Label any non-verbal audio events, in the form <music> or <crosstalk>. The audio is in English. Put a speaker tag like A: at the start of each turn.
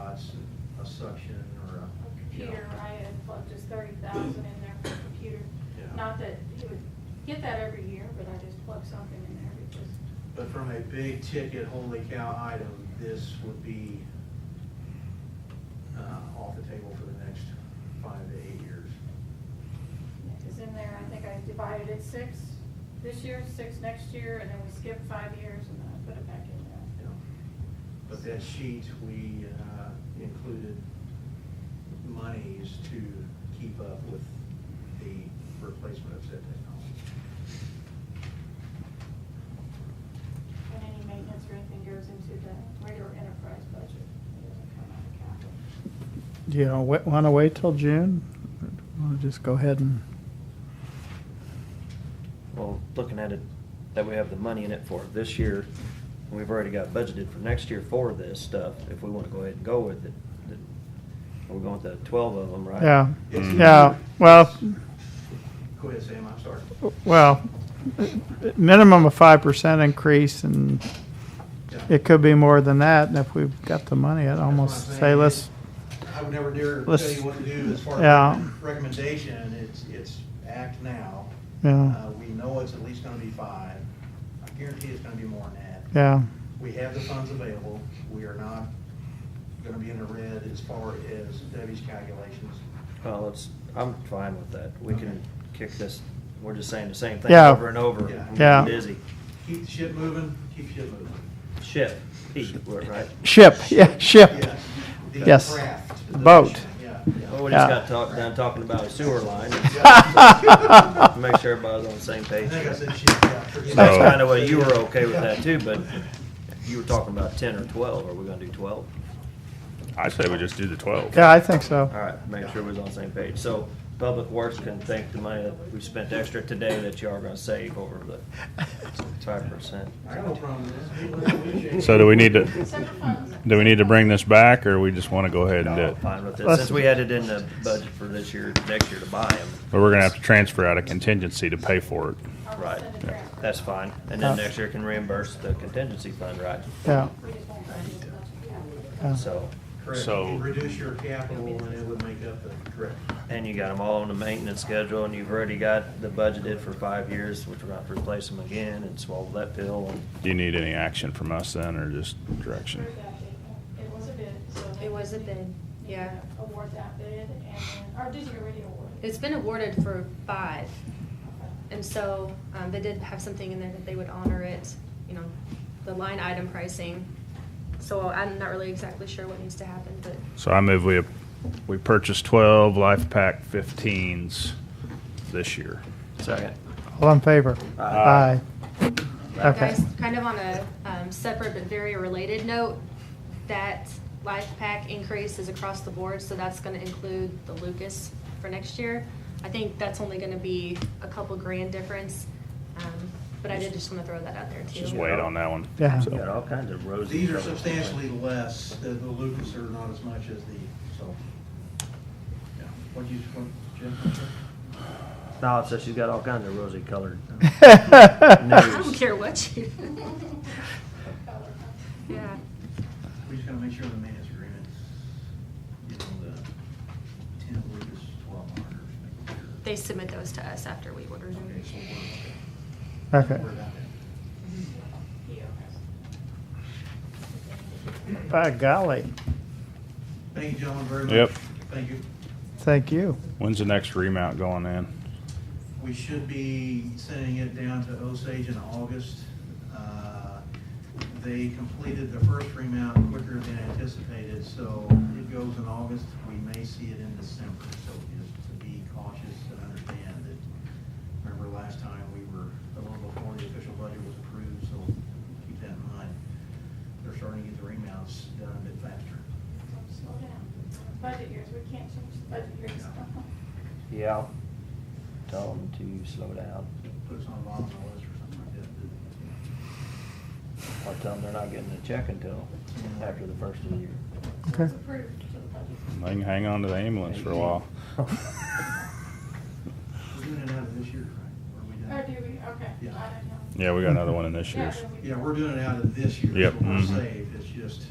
A: us a suction or a.
B: a computer, I had plugged just thirty thousand in there for a computer.
A: Yeah.
B: Not that he would get that every year, but I just plugged something in there because,
A: But from a big ticket, holy cow item, this would be uh, off the table for the next five to eight years.
B: because in there, I think I divided it six this year, six next year, and then we skipped five years and then I put it back in
A: you
B: there.
A: know. But that sheet, we uh, included monies to keep up with the replacement of said technology.
B: And any maintenance or anything goes into the regular enterprise budget. It doesn't come out of capital.
C: Do you want to wait till June? Or do you wanna just go ahead and,
D: Well, looking at it, that we have the money in it for this year, and we've already got budgeted for next year for this stuff, if we wanna go ahead and go with it, then we're going with the twelve of them, right?
C: yeah,
A: It's-
C: yeah, well,
A: Go ahead, Sam, I'm sorry.
C: well, minimum of five percent increase and
A: Yeah.
C: it could be more than that. And if we've got the money, I'd
A: That's what
C: almost
A: I'm
C: say
A: saying.
C: let's,
A: I would never dare tell
C: Let's-
A: you what to do as far
C: Yeah.
A: as recommendation, it's, it's act now.
C: yeah,
A: Uh, We know it's at least gonna be five, I guarantee it's gonna be more than that.
C: yeah,
A: We have the funds available, we are not gonna be in the red as far as Debbie's calculations.
D: Well, it's, I'm fine with that, we
A: Okay.
D: can kick this, we're just saying the same thing
C: Yeah.
D: over and over,
A: Yeah.
D: I'm
C: Yeah.
D: getting busy.
A: Keep the ship moving, keep ship moving.
D: Ship, Pete, right?
C: ship, <laughs> yeah, ship.
A: Yes. The
C: Yes.
A: craft, the
C: Boat.
A: mission, Yeah,
D: Well,
A: yeah.
D: we
C: Yeah.
D: just got talk, done talking about a sewer line, make sure everybody's on the same
A: I
D: page.
A: think I said ship, yeah. forget
D: That's
A: it.
E: So-
D: kind of what you were okay with that too, but you were talking about ten or twelve, are we gonna do twelve?
E: I say we just do the twelve.
C: Yeah, I think so.
D: All right, make sure we're on the same page. So Public Works can thank the money that we spent extra today that you are gonna save over the five percent.
A: I got no problem with this.
E: So do we need to,
B: Separate funds.
E: do we need to bring this back, or we just wanna go ahead and do it?
D: Fine with it.
C: Let's-
D: Since we had it in the budget for this year, next year to buy them,
E: But we're gonna have to transfer out a contingency to pay for it.
B: I'll just
D: Right.
B: send a transfer.
D: that's fine. And then next year can reimburse the contingency fund, right?
C: Yeah,
B: We just won't find it unless we have it.
C: yeah.
D: So,
A: Correct.
E: So-
A: You Reduce your capital and it would make up the, correct.
D: and you got them all on the maintenance schedule and you've already got the budgeted for five years, which we're gonna have to replace them again and swallow that pill and
E: Do you need any action from us then, or just direction?
B: Approve that bid. It was a bid, so.
F: It was a bid, yeah.
B: Award that bid and, then- or did you already award it?
F: It's been awarded for five, and so um, they did have something in there that they would honor it, you know, the line item pricing. So I'm not really exactly sure what needs to happen, but
E: So I move we, we purchased twelve Life Pack fifteens this year.
D: second.
C: All in favor?
E: Aye.
C: Aye. Okay.
F: guys, kind of on a um, separate but very related note, that life pack increase is across the board, so that's going to include the Lucas for next year. I think that's only going to be a couple grand difference, um, but I did just want to throw that out there too.
E: Just wait on that one.
C: Yeah.
E: So-
D: You got all kinds of rosy.
A: These are
D: troubles.
A: substantially less, the, the Lucas are not as much as the, so. yeah. What'd you, what, Jim?
D: No, it says she's got all kinds of rosy colored. uh,
C: <laughs>
F: I don't care what you. <laughs> Yeah.
A: We just gotta make sure the man's agreement, you know, the ten Lucas, twelve monitors, making sure.
F: They submit those to us after we order them.
A: Okay, so we're, okay.
C: Okay.
A: We're about there.
C: By golly,
A: Thank you, gentlemen, very much.
E: Yep.
A: Thank you.
C: thank you.
E: When's the next remount going in?
A: We should be sending it down to Osage in August. Uh, They completed the first remount quicker than anticipated, so it goes in August. We may see it in December, so just to be cautious and understand that, remember last time we were a little before the official budget was approved, so keep that in mind. They're starting to get the remounts done a bit faster.
B: Slow down. Budget years, we can't change the budget years.
D: Yeah. Tell them to slow down,
A: Put us on bottom of the list or something like that.
D: or tell them they're not getting a check until after the first of the year.
C: Okay.
B: It's approved to the budget.
E: They can hang on to the ambulance for a
C: <laughs>
E: while.
A: We're doing it out of this year, right? Or are we doing it?
B: Oh, do we, okay, I don't know.
E: Yeah, we got another one in this
B: Yeah,
E: year's.
B: then we-
A: Yeah, we're doing it out of this year.
E: Yep,
A: So we're
E: mhm.
A: saved, it's just,